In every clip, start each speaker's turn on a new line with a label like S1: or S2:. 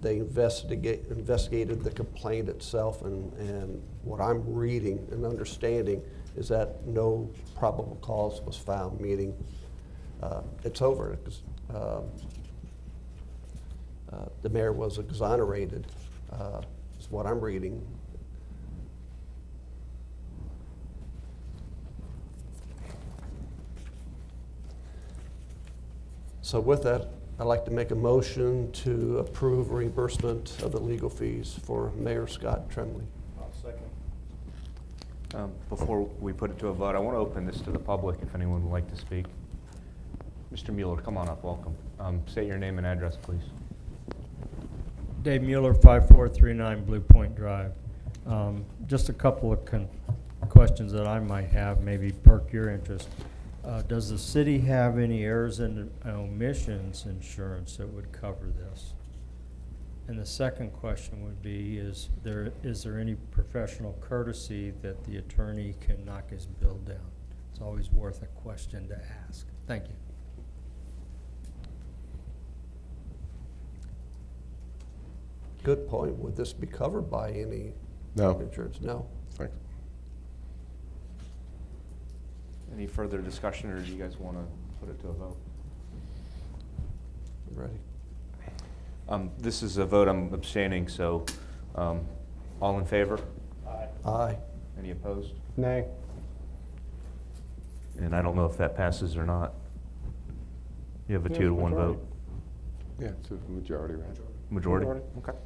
S1: They investigate, investigated the complaint itself, and, and what I'm reading and understanding is that no probable cause was found, meaning uh, it's over. It's, um, uh, The mayor was exonerated, uh, is what I'm reading. So with that, I'd like to make a motion to approve reimbursement of the legal fees for Mayor Scott Tremley.
S2: I'll second.
S3: Um, Before we put it to a vote, I want to open this to the public if anyone would like to speak. Mr. Mueller, come on up, welcome. Um, Say your name and address, please.
S4: Dave Mueller, 5439 Blue Point Drive. Um, Just a couple of con- questions that I might have, maybe perk your interest. Uh, Does the city have any errors and omissions insurance that would cover this? And the second question would be, is there, is there any professional courtesy that the attorney can knock his bill down? It's always worth a question to ask. Thank you.
S1: Good point. Would this be covered by any
S5: No,
S1: insurance? No.
S5: thanks.
S3: Any further discussion, or do you guys want to put it to a vote?
S1: Ready?
S3: Um, This is a vote I'm abstaining, so um, all in favor?
S1: Aye.
S3: Any opposed?
S2: Nay.
S3: And I don't know if that passes or not. You have a
S2: Yeah,
S3: two to one
S2: majority.
S3: vote.
S5: Yeah, it's a majority, right?
S3: Majority?
S2: Majority.
S3: Okay.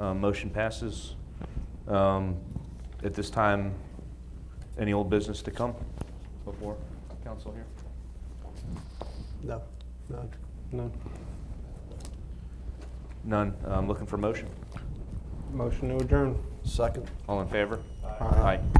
S3: Uh, Motion passes. Um, At this time, any old business to come before council here?
S1: No, none.
S2: None.
S3: None. Um, Looking for motion.
S2: Motion to adjourn.
S1: Second.
S3: All in favor?
S2: Aye.
S3: Aye.